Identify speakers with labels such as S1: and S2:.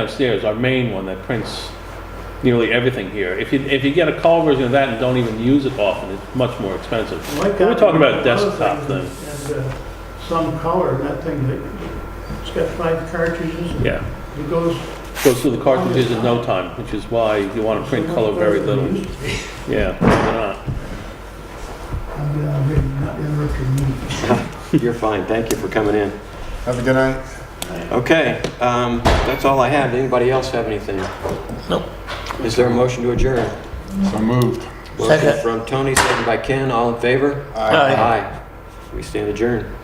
S1: downstairs, our main one that prints nearly everything here. If you, if you get a call version of that and don't even use it often, it's much more expensive.
S2: Like
S1: We're
S2: that
S1: talking about
S2: one, other
S1: desktop
S2: thing, And uh, some color, that thing that, it's got five cartridges and
S1: Yeah,
S2: it goes.
S1: goes through the cartridges in no time, which is why you want to print color very little. Yeah, they're not.
S2: I'm uh, not interrupting you.
S3: You're fine, thank you for coming in.
S4: Have a good night.
S3: Okay, um, that's all I have. Anybody else have anything? No. Is there a motion to adjourn?
S4: So moved.
S3: Motion from Tony, second by Ken, all in favor?
S4: Aye.
S3: Aye. We stand adjourned.